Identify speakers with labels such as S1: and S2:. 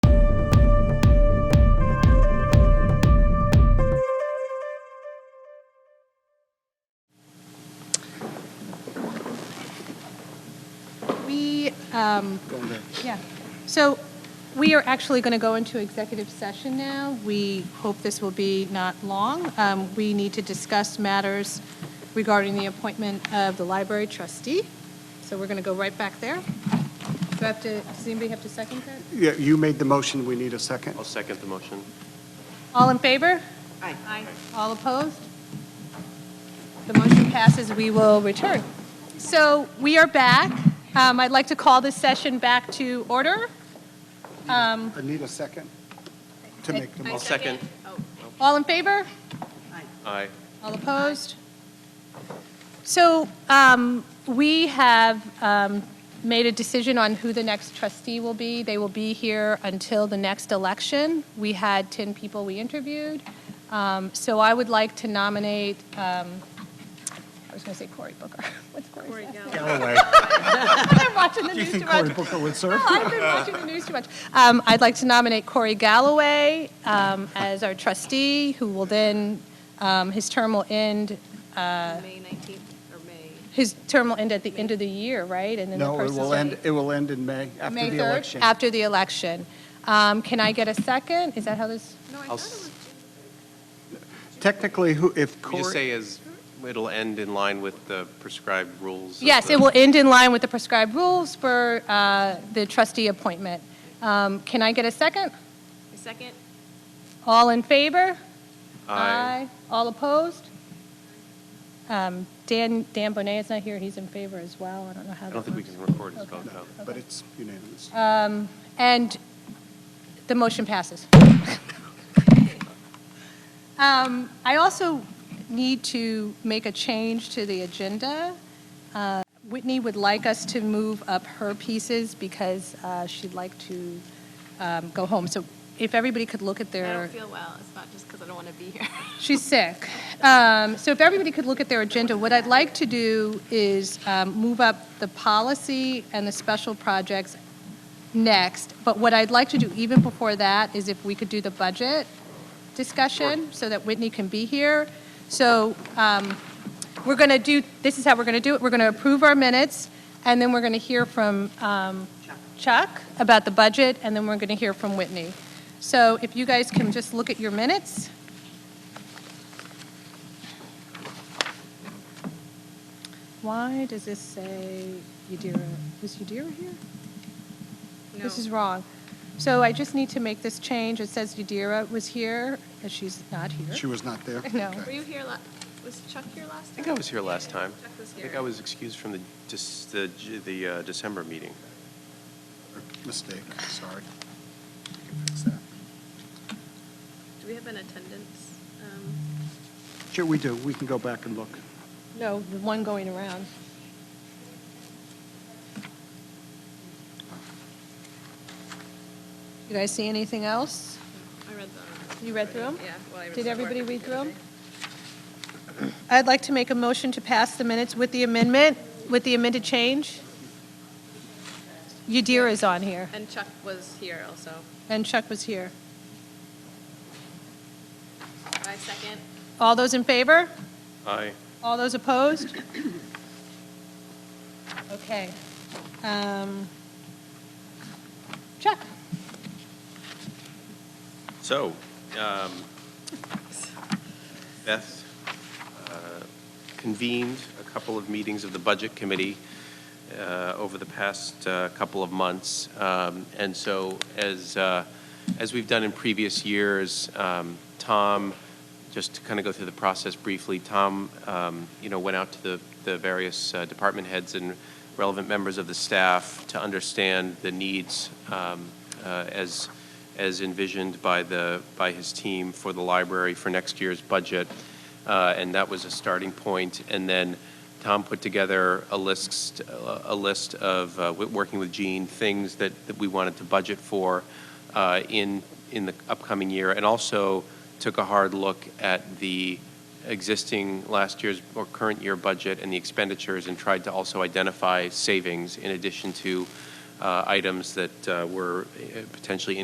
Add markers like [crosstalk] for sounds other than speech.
S1: Um, Yeah. So we are actually going to go into executive session now. We hope this will be not long. Um, We need to discuss matters regarding the appointment of the library trustee. So we're going to go right back there. Do I have to, does anybody have to second that?
S2: Yeah, you made the motion, we need a second.
S3: I'll second the motion.
S1: All in favor? Aye. Aye. All opposed? The motion passes, we will return. So we are back. Um, I'd like to call this session back to order.
S2: I need a second to make the
S1: Mm-hmm. I-
S2: motion.
S3: I'll second.
S1: All in favor?
S3: Aye.
S1: All opposed? So um, we have um, made a decision on who the next trustee will be. They will be here until the next election. We had 10 people we interviewed. Um, So I would like to nominate, um, I was going to say Cory Booker. [laughs] What's Cory's last name?
S4: Uh,
S2: Galloway.
S1: I've been watching the
S2: Do you
S1: news too
S2: think Cory
S1: much.
S2: Booker would serve?
S1: [laughs] No, I've been watching the news too much. Um, I'd like to nominate Corey Galloway um, as our trustee, who will then, um, his term will end,
S4: May 19th or May.
S1: his term will end at the end of the year, right? And then the
S2: No, it
S1: person's-
S2: will end, it will end in May, after
S1: May
S2: the
S1: 3rd,
S2: election.
S1: After the election. Um, Can I get a second? Is that how this,
S4: No, I
S3: I'll
S4: thought it was,
S2: Technically, who, if
S3: We just
S2: Cory,
S3: say is, it'll end in line with the prescribed rules. of
S1: yes,
S3: the-
S1: it will end in line with the prescribed rules for uh, the trustee appointment. Um, Can I get a second?
S4: a second?
S1: All in favor?
S3: Aye.
S1: All opposed? Um, Dan, Dan Bonet is not here, he's in favor as well, I don't know how
S3: I
S1: that
S3: don't
S1: works.
S3: think we can record his vote, though.
S2: but it's unanimous.
S1: Uh, And the motion passes. Um, I also need to make a change to the agenda. Uh, Whitney would like us to move up her pieces because uh, she'd like to um, go home. So if everybody could look at
S4: I
S1: their.
S4: don't feel well. It's not just because I don't want to be
S1: [laughs]
S4: here.
S1: She's sick. Um, So if everybody could look at their agenda, what I'd like to do is um, move up the policy and the special projects next, but what I'd like to do even before that is if we could do the budget discussion so that Whitney can be here. So um, we're going to do, this is how we're going to do it. We're going to approve our minutes, and then we're going to hear from um, Chuck about the budget, and then we're going to hear from Whitney. So if you guys can just look at your minutes. Why does this say Yadira? Is Yadira here? This is wrong. So I just need to make this change. It says Yadira was here, and she's not here.
S2: She was not there?
S1: [laughs] No.
S2: Okay.
S4: Were you here, la- was Chuck here last
S3: I
S4: time?
S3: think I was here last time.
S4: Chuck was
S3: I think
S4: here.
S3: I was excused from the, dis- the J- the uh, December meeting.
S2: Mistake, sorry. We can fix that.
S4: Do we have an attendance? um,
S2: Sure, we do, we can go back and look.
S1: No, the one going around. You guys see anything else?
S4: I read the.
S1: You read through 'em?
S4: Yeah. well, I read
S1: Did
S4: the
S1: everybody
S4: record
S1: read
S4: the
S1: through
S4: other
S1: 'em?
S4: day.
S1: I'd like to make a motion to pass the minutes with the amendment, with the amended change. Yadira is on here,
S4: And Chuck was here also.
S1: and Chuck was here.
S4: I second.
S1: All those in favor?
S3: Aye.
S1: All those opposed? Okay. Um, Chuck?
S3: So, um, Beth uh, convened a couple of meetings of the Budget Committee uh, over the past uh, couple of months. Um, And so, as, uh, as we've done in previous years, um, Tom, just to kind of go through the process briefly, Tom, um, you know, went out to the, the various uh, department heads and relevant members of the staff to understand the needs um, uh, as, as envisioned by the, by his team for the library for next year's budget. Uh, And that was a starting point. And then Tom put together a list, a list of, uh, wi- working with Gene, things that, that we wanted to budget for uh, in, in the upcoming year. And also took a hard look at the existing last year's or current year budget and the expenditures and tried to also identify savings in addition to uh, items that uh, were uh, potentially